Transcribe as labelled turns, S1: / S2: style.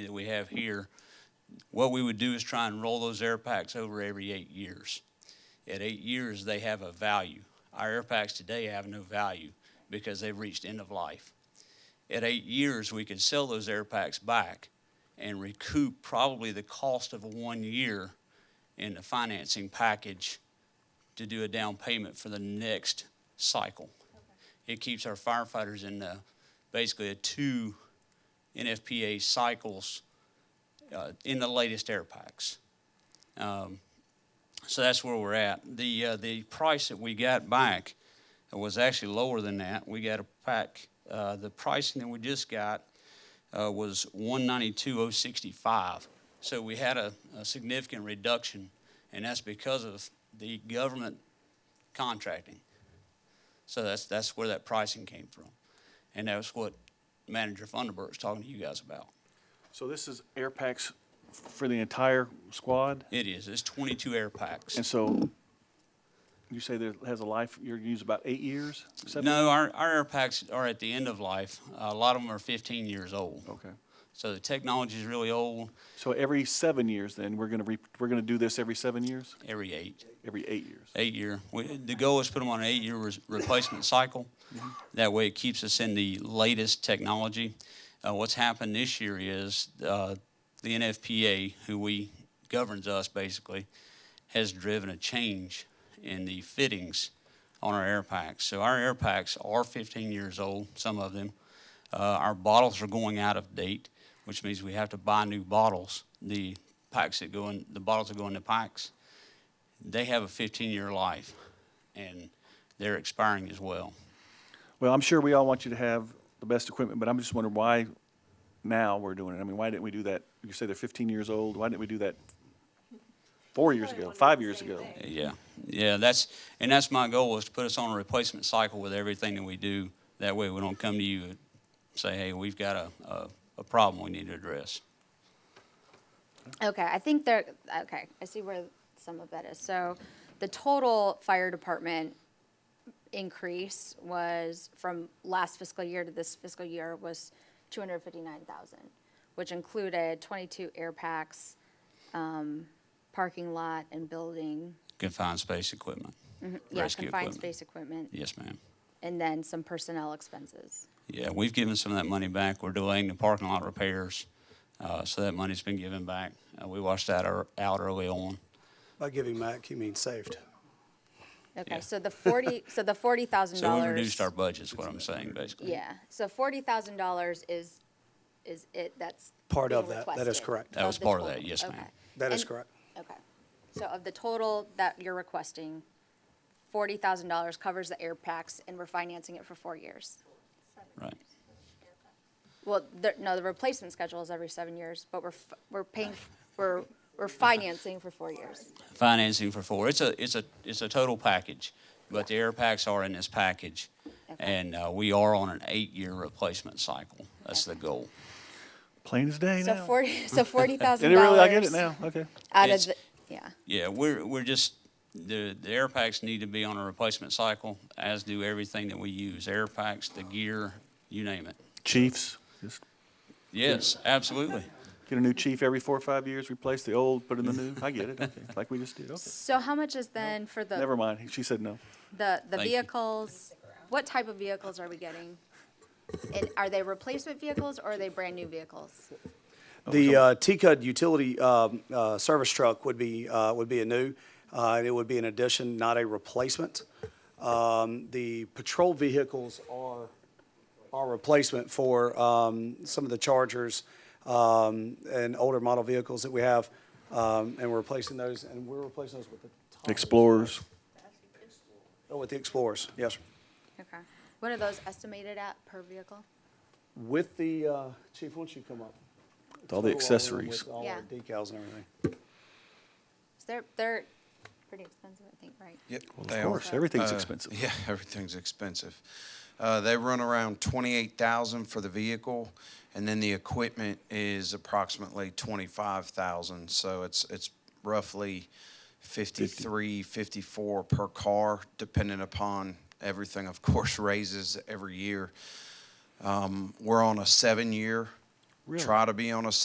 S1: that we have here, what we would do is try and roll those air packs over every eight years. At eight years, they have a value. Our air packs today have no value because they've reached end of life. At eight years, we could sell those air packs back and recoup probably the cost of one year in the financing package to do a down payment for the next cycle. It keeps our firefighters in uh, basically a two NFPA cycles uh, in the latest air packs. Um, so that's where we're at. The uh, the price that we got back was actually lower than that. We got a pack. Uh, the pricing that we just got uh, was one ninety two oh sixty five. So we had a, a significant reduction, and that's because of the government contracting. So that's that's where that pricing came from, and that's what Manager Funderburk's talking to you guys about.
S2: So this is air packs for the entire squad?
S1: It is. It's 22 air packs.
S2: And so you say that it has a life, you're gonna use about eight years? seven-
S1: No, our, our air packs are at the end of life. A lot of them are 15 years old.
S2: Okay.
S1: So the technology is really old.
S2: So every seven years then, we're gonna, re- we're gonna do this every seven years?
S1: Every eight,
S2: Every eight years?
S1: eight year. We, the goal is put them on an eight year re- replacement cycle. That way, it keeps us in the latest technology. Uh, what's happened this year is uh, the NFPA, who we governs us basically, has driven a change in the fittings on our air packs. So our air packs are 15 years old, some of them. Uh, our bottles are going out of date, which means we have to buy new bottles. The packs that go in, the bottles that go in the packs, they have a 15-year life, and they're expiring as well.
S2: Well, I'm sure we all want you to have the best equipment, but I'm just wondering why now we're doing it. I mean, why didn't we do that? You say they're 15 years old. Why didn't we do that four years ago, five years ago?
S1: Yeah, yeah, that's, and that's my goal is to put us on a replacement cycle with everything that we do. That way we don't come to you and say, hey, we've got a, a, a problem we need to address.
S3: Okay, I think there, okay, I see where some of that is. So the total fire department increase was from last fiscal year to this fiscal year was two hundred fifty-nine thousand, which included twenty-two air packs, um, parking lot and building,
S1: Confined space equipment.
S3: Mm-hmm. yeah,
S1: rescue
S3: confined
S1: equipment.
S3: space equipment,
S1: Yes, ma'am.
S3: and then some personnel expenses.
S1: Yeah, we've given some of that money back. We're delaying the parking lot repairs, uh, so that money's been given back. Uh, we washed that ear- out early on.
S4: By giving back, you mean saved.
S1: Yeah.
S3: Okay, so the forty, so the forty thousand
S1: So
S3: dollars.
S1: we reduced our budget, is what I'm saying, basically.
S3: Yeah, so forty thousand dollars is, is it, that's.
S4: Part
S3: being
S4: of that. That is
S3: requested?
S4: correct.
S1: That was
S3: the
S1: part of
S3: total?
S1: that, yes, ma'am.
S3: Okay.
S4: That is
S3: And-
S4: correct.
S3: Okay, so of the total that you're requesting, forty thousand dollars covers the air packs and we're financing it for four years.
S1: Right.
S3: Well, the, no, the replacement schedule is every seven years, but we're, f- we're paying, we're, we're financing for four years.
S1: Financing for four. It's a, it's a, it's a total package, but the air packs are in this package. And, uh, we are on an eight-year replacement cycle. That's the goal.
S2: Plain as day
S3: So
S2: now.
S3: forty, so forty thousand
S2: Did it
S3: dollars.
S2: really? I get it now. Okay.
S3: Out of
S1: It's-
S3: the, yeah,
S1: Yeah, we're, we're just, the, the air packs need to be on a replacement cycle, as do everything that we use, air packs, the gear, you name it.
S2: Chiefs. Just
S1: Yes, absolutely.
S2: get a new chief every four or five years, replace the old, put in the new. I get it. Okay. Like we just did. Okay.
S3: so how much is then for the?
S2: Never mind. She said no.
S3: The, the
S1: Thank you.
S3: vehicles, what type of vehicles are we getting? And are they replacement vehicles or are they brand-new vehicles?
S2: Oh,
S4: The uh, T-Cud utility um, uh, service truck would be, uh, would be a new, uh, and it would be an addition, not a replacement. Um, The patrol vehicles are, are replacement for um, some of the Chargers um, and older model vehicles that we have, um, and we're replacing those, and we're replacing those with the. Tahoes.
S2: Explorers.
S4: Oh, with the Explorers, yes. sir.
S3: Okay. What are those estimated at per vehicle?
S4: With the, uh, Chief, why don't you come up?
S2: With all the
S4: Total all in
S2: accessories.
S4: With all
S3: Yeah.
S4: our decals and everything.
S3: Is they're, they're pretty expensive, I think, right?
S5: Yep, they
S2: Of
S5: are.
S2: course. Everything's
S5: Uh,
S2: expensive.
S5: Yeah, everything's expensive. Uh, they run around twenty-eight thousand for the vehicle, and then the equipment is approximately twenty-five thousand. So it's it's roughly 53, 54 per car, depending upon everything. Of course, raises every year. Um, we're on a seven-year.
S2: Really?
S5: Try to be on a